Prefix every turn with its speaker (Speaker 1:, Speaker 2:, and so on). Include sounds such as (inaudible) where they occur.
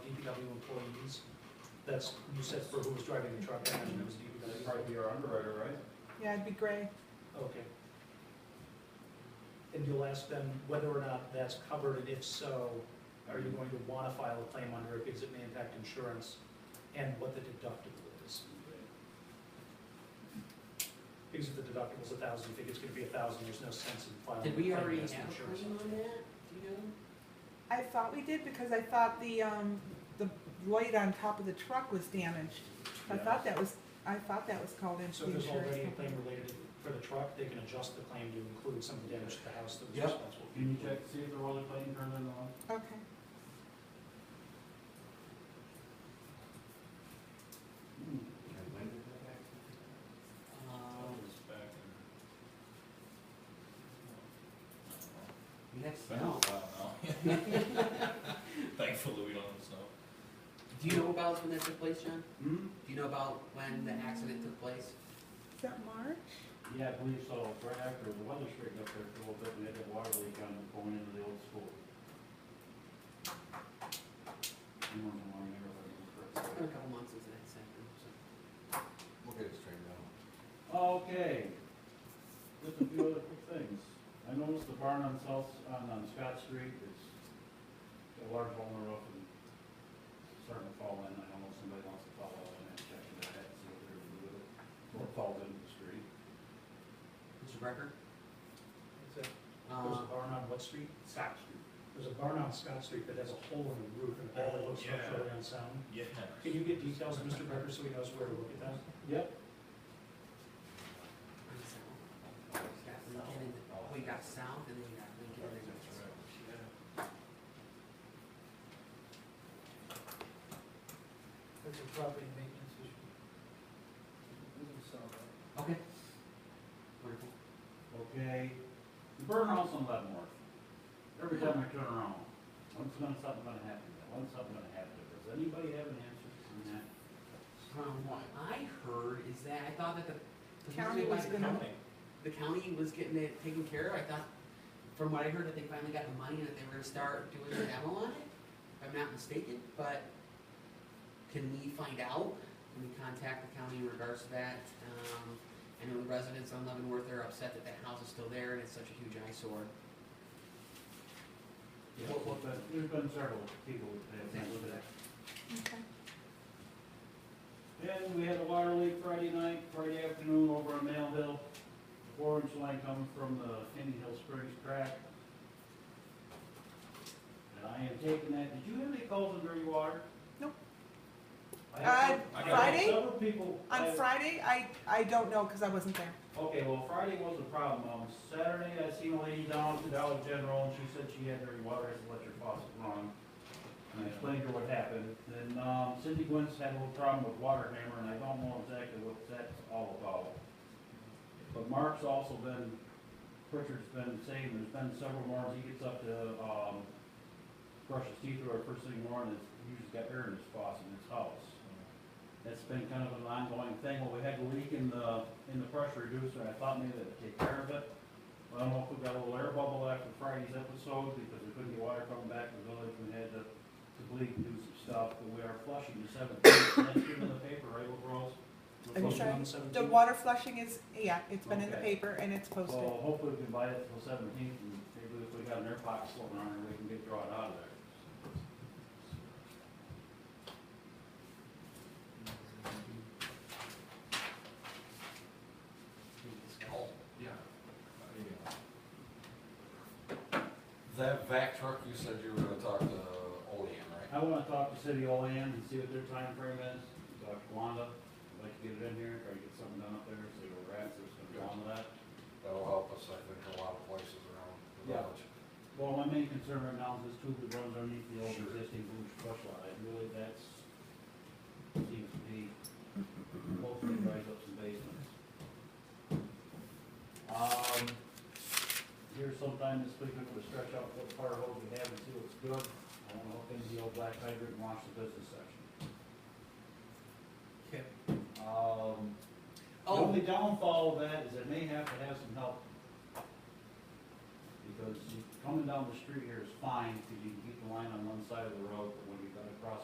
Speaker 1: DPW employees. That's, you said for who was driving the truck, I imagine it was
Speaker 2: That'd
Speaker 1: DPW.
Speaker 2: probably be our underwriter, right?
Speaker 3: Yeah, it'd be gray.
Speaker 1: Okay. And you'll ask them whether or not that's covered, and if so, are you going to want to file a claim under it because it may impact insurance, and what the deductible is? Because if the deductible's a thousand, you think it's gonna be a thousand, there's no sense in filing.
Speaker 4: Did
Speaker 1: a
Speaker 4: we
Speaker 1: claim
Speaker 4: already have
Speaker 1: against
Speaker 4: a
Speaker 1: insurance.
Speaker 4: claim on that? Do you know?
Speaker 3: I thought we did because I thought the, um, the light on top of the truck was damaged. I
Speaker 2: Yeah.
Speaker 3: thought that was, I thought that was called into
Speaker 1: So
Speaker 3: the
Speaker 1: if there's
Speaker 3: insurance
Speaker 1: already a
Speaker 3: company.
Speaker 1: claim related for the truck, they can adjust the claim to include some of the damage to the house that was
Speaker 5: Yep.
Speaker 1: responsible.
Speaker 2: Can you check, see if the roller plane turned on off?
Speaker 3: Okay.
Speaker 5: When did that happen?
Speaker 2: Oh,
Speaker 4: Um,
Speaker 2: it's back in-
Speaker 5: Next
Speaker 2: Been a
Speaker 5: month.
Speaker 2: while now. (laughs) Thankfully, we don't have snow.
Speaker 4: Do you know about when that took place, John?
Speaker 5: Hmm?
Speaker 4: Do you know about when the accident took place?
Speaker 3: Is that March?
Speaker 5: Yeah, I believe so, right after the weather straightened up there for a little bit, we had that water leak on the, going into the old school. You weren't in the wrong neighborhood, you were
Speaker 4: It's
Speaker 5: correct.
Speaker 4: been a couple months since that happened, so.
Speaker 6: We'll get it straightened out.
Speaker 5: Okay, just a few other quick things. I noticed the barn on South, on, on Scott Street is, got a large hole in the roof and starting to fall in. I don't know if somebody wants to follow in and check into that, see what they're gonna do with it. Or it falls into the street.
Speaker 4: Mr. Brecker?
Speaker 1: There's a
Speaker 4: Uh,
Speaker 1: barn on what street?
Speaker 5: Scott Street.
Speaker 1: There's a barn on Scott Street that has a hole in the roof and apparently
Speaker 2: Oh,
Speaker 1: looks
Speaker 2: yeah.
Speaker 1: structurally unsound.
Speaker 2: Yeah.
Speaker 1: Can you get details, Mr. Becker, so he knows where to look at that?
Speaker 5: Yep,
Speaker 4: got Lincoln in
Speaker 5: Oh,
Speaker 4: the- we got south and then you got Lincoln and then
Speaker 2: That's right.
Speaker 7: That's a property maintenance issue. Doesn't sound right.
Speaker 4: Okay. Wonderful.
Speaker 5: okay. The burn house on Leavenworth. Every time I turn around, when's gonna, something gonna happen, to that? when's something gonna happen? to that? Does anybody have an answer to that?
Speaker 4: From what I heard is that, I thought that the. the
Speaker 3: County
Speaker 4: reason
Speaker 3: was
Speaker 4: why the
Speaker 3: gonna-
Speaker 4: county- The county was getting it taken care of, I thought, from what I heard, that they finally got the money and that they were gonna start doing the demo on it, if I'm not mistaken, but can we find out? Can we contact the county in regards to that? Um, I know the residents on Leavenworth are upset that that house is still there and it's such a huge eyesore.
Speaker 5: What, what, the- there's been several people that have looked at that.
Speaker 3: Okay.
Speaker 5: Then we had a water leak Friday night, Friday afternoon over on Mail Hill. Four inch line coming from the Indian Hill Springs crack. And I am taking that, did you have any calls on dirty water?
Speaker 3: Nope.
Speaker 5: I have-
Speaker 3: Uh,
Speaker 5: I got
Speaker 3: Friday?
Speaker 5: Several people. I-
Speaker 3: On Friday, I, I don't know because I wasn't there.
Speaker 5: Okay, well, Friday was the problem. Um, Saturday, I seen a lady down at the Dollar General, and she said she had dirty water, and electric faucet run. And I explained to her what happened. Then, um, Cindy Gwens had a little problem with water hammer, and I don't know exactly what that's all about. But Mark's also been, Pritchard's been saying, there's been several mornings, he gets up to, um, brush his teeth or first thing in the morning, he's just got air in his faucet in his house that's been kind of an ongoing thing, well, we had a leak in the, in the pressure reducer, I thought maybe that'd take care of it. I don't know if we got a little air bubble after Friday's episode, because we couldn't get water coming back from the village, we had to, to bleed and do some stuff, but we are flushing the seventeenth, that's been in the paper, right, Rose? We're
Speaker 1: On
Speaker 3: I'm sorry?
Speaker 5: flushing
Speaker 1: the 17th?
Speaker 3: The water flushing is, yeah, it's been in the
Speaker 5: Okay. Oh,
Speaker 3: paper and it's posted.
Speaker 5: Well, hopefully we can buy it till seventeenth, and maybe if we got an air pocket floating around, here, we can get drawn out of there.
Speaker 6: That vac truck, you said you were gonna talk to Olean, right?
Speaker 5: I wanna talk to City Olean and see what their time frame is, talk to Wanda, I'd like to get it in here, try to get something done up there, see where we're at, so it's gonna go on to that.
Speaker 6: That'll help us, I think, in a lot of places around
Speaker 5: Yeah.
Speaker 6: the village.
Speaker 5: Well, my main concern right now is this tube that runs underneath the old existing Blue flush line, really, that's, seems to be, hopefully rise up some basements. Um, here sometime this week, I'm gonna stretch out what fire hose we have and see what's good, I wanna hook into the old black hydrant and wash the business section.
Speaker 4: Okay.
Speaker 5: Um, the
Speaker 4: Oh,
Speaker 5: only downfall of that is it may have to have some help. Because you- coming down the street here is fine, because you can keep the line on one side of the road, but when you